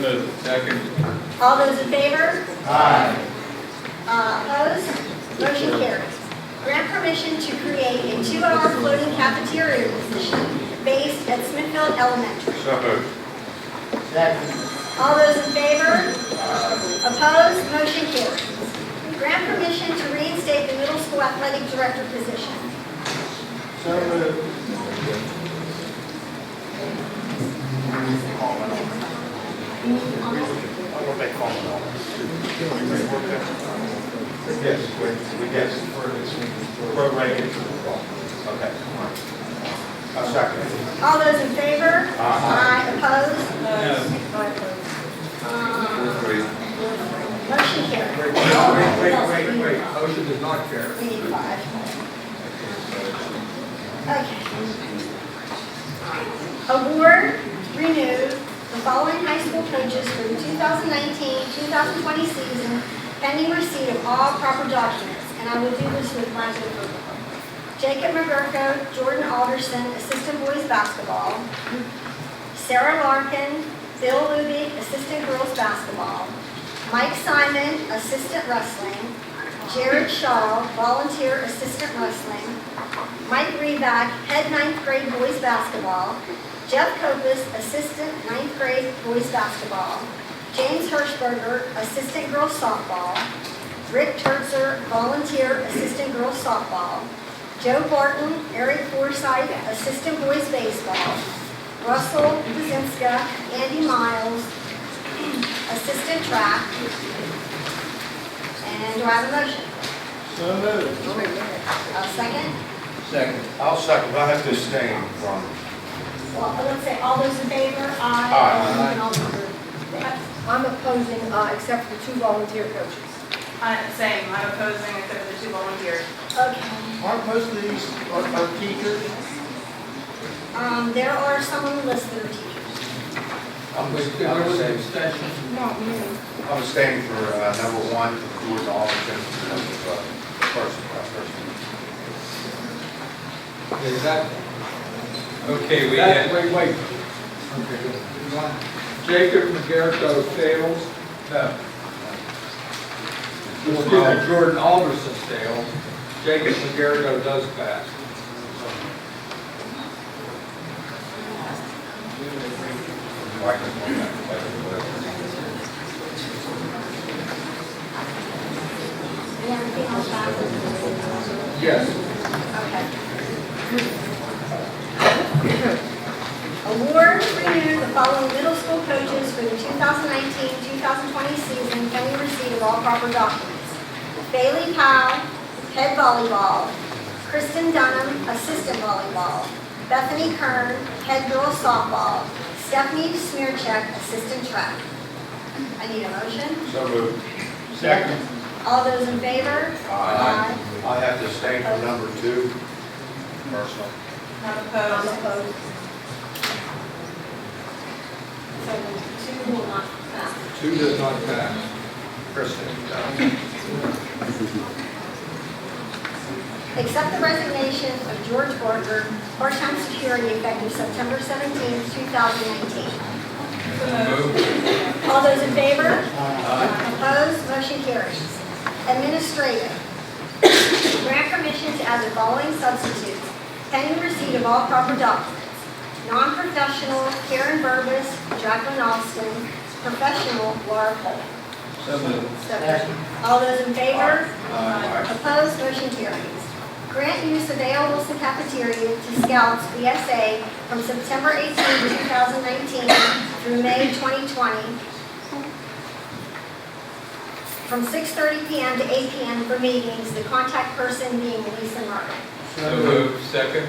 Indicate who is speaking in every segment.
Speaker 1: moved. Second.
Speaker 2: All those in favor?
Speaker 1: Aye.
Speaker 2: Uh, Opposed? Motion carries. Grant permission to create a two-hour floating cafeteria position based at Smithfield Elementary.
Speaker 1: So moved.
Speaker 3: Second.
Speaker 2: All those in favor? Opposed? Motion carries. Grant permission to reinstate the middle school athletic director position.
Speaker 3: So moved.
Speaker 1: Yes, we, we guess. We're ready. Okay. A second.
Speaker 2: All those in favor?
Speaker 1: Aye.
Speaker 2: Opposed?
Speaker 1: No.
Speaker 2: Aye, opposed.
Speaker 1: Three.
Speaker 2: Uh, Motion carries.
Speaker 3: Wait, wait, wait, wait, motion does not carry.
Speaker 2: We need five. Okay. Award renewed the following high school coaches for the 2019-2020 season pending receipt of all proper documents, and I will do this with Michael approval. Jacob McGurko, Jordan Alderson, assistant boys basketball. Sarah Larkin, Bill Luby, assistant girls basketball. Mike Simon, assistant wrestling. Jared Shaw, volunteer assistant wrestling. Mike Reback, head ninth grade boys basketball. Jeff Copus, assistant ninth grade boys basketball. James Hirschberger, assistant girls softball. Rick Turzer, volunteer assistant girls softball. Joe Barton, Eric Forsythe, assistant boys baseball. Russell Buzinska, Andy Miles, assistant track. And do I have a motion?
Speaker 3: So moved.
Speaker 2: A second?
Speaker 3: Second.
Speaker 1: I'll second, I have to abstain from.
Speaker 2: Well, let's say, all those in favor?
Speaker 1: Aye.
Speaker 2: And all those opposed?
Speaker 4: I'm opposing, uh, except for the two volunteer coaches.
Speaker 5: I'm saying, I'm opposing except for the two volunteers.
Speaker 2: Okay,
Speaker 3: Aren't most of these are are teachers?
Speaker 2: um, there are some on the list that are teachers.
Speaker 1: I'm abstaining.
Speaker 4: Not me.
Speaker 1: I'm abstaining for uh, number one, George Alderson, and number, uh, first, uh, first.
Speaker 6: Is that,
Speaker 7: Okay, we uh,
Speaker 6: that,
Speaker 7: have,
Speaker 6: wait, wait. Okay, good. One. Jacob McGarrico fails, no. Excuse me, Jordan Alderson fails, Jacob McGarrico does pass.
Speaker 1: Microphone, whatever.
Speaker 2: We have anything else back?
Speaker 6: Yes.
Speaker 2: Okay. Award renewed the following middle school coaches for the 2019-2020 season pending receipt of all proper documents. Bailey Powell, head volleyball. Kristen Dunham, assistant volleyball. Bethany Kern, head girls softball. Stephanie Smearcheck, assistant track. I need a motion.
Speaker 1: So moved.
Speaker 3: Second.
Speaker 2: All those in favor?
Speaker 1: Aye. I have to abstain from number two, personal.
Speaker 5: I'm
Speaker 2: I'm
Speaker 5: opposed.
Speaker 2: opposed. So two will not pass.
Speaker 6: Two does not pass.
Speaker 1: Kristen, uh,
Speaker 2: Accept the resignation of George Barker, part-time security effective September 17, 2019.
Speaker 7: move,
Speaker 2: All those in favor? Opposed, motion carries. Administrative. Grant permission to add the following substitutes pending receipt of all proper documents. Non-professional Karen Burbis, Jacqueline Austin, professional Laura Cole.
Speaker 1: so moved.
Speaker 3: Second.
Speaker 2: All those in favor?
Speaker 1: Aye.
Speaker 2: Opposed, motion carries. Grant use of A.L. Wilson Cafeteria to Scouts BSA from September 18, 2019 through May 2020, from 6:30 PM to 8 PM for meetings, the contact person being Lisa Martin.
Speaker 7: so move, second,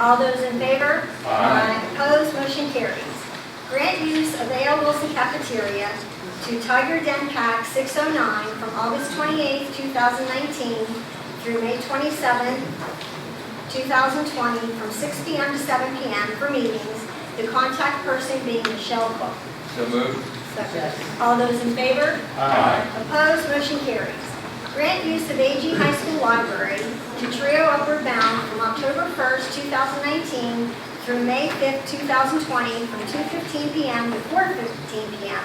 Speaker 2: All those in favor?
Speaker 1: Aye.
Speaker 2: Opposed, motion carries. Grant use of A.L. Wilson Cafeteria to Tiger Den Pack 609 from August 28, 2019 through May 27, 2020, from 6 p.m. to 7 p.m. for meetings, the contact person being Michelle Cook.
Speaker 7: so move,
Speaker 2: All those in favor?
Speaker 1: Aye.
Speaker 2: Opposed, motion carries. Grant use of AG High School Library to Trio Upward Bound from October 1st, 2019 through May 5th, 2020, from 2:15 PM to 4:15 PM